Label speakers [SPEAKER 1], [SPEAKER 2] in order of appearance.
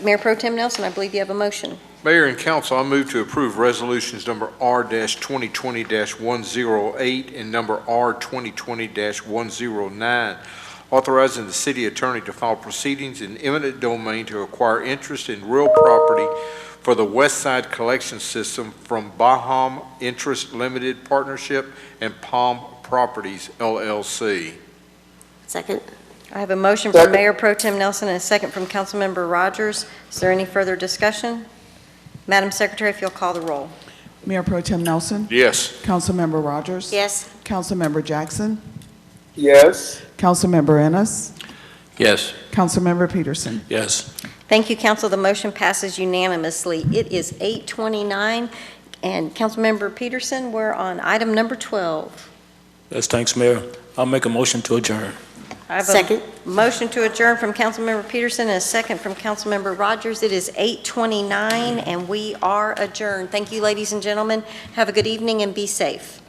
[SPEAKER 1] Mayor Pro Tem Nelson, I believe you have a motion.
[SPEAKER 2] Mayor and council, I move to approve resolutions number R twenty twenty one zero eight and number R twenty twenty one zero nine, authorizing the city attorney to file proceedings in eminent domain to acquire interest in real property for the West Side Collection System from Baham Interest Limited Partnership and Palm Properties LLC.
[SPEAKER 3] Second?
[SPEAKER 1] I have a motion from
[SPEAKER 4] Second.
[SPEAKER 1] Mayor Pro Tem Nelson and a second from Councilmember Rogers. Is there any further discussion? Madam Secretary, if you'll call the roll.
[SPEAKER 5] Mayor Pro Tem Nelson,
[SPEAKER 2] Yes.
[SPEAKER 5] Councilmember Rogers.
[SPEAKER 3] Yes.
[SPEAKER 5] Councilmember Jackson,
[SPEAKER 4] yes,
[SPEAKER 5] Councilmember Ennis,
[SPEAKER 6] Yes.
[SPEAKER 5] Councilmember Peterson.
[SPEAKER 6] Yes.
[SPEAKER 1] Thank you, council. The motion passes unanimously. It is 8:29, and Councilmember Peterson, we're on item number 12.
[SPEAKER 6] Yes, thanks, Mayor. I'll make a motion to adjourn.
[SPEAKER 1] I have a
[SPEAKER 3] Second?
[SPEAKER 1] Motion to adjourn from Councilmember Peterson and a second from Councilmember Rogers. It is 8:29, and we are adjourned. Thank you, ladies and gentlemen. Have a good evening and be safe.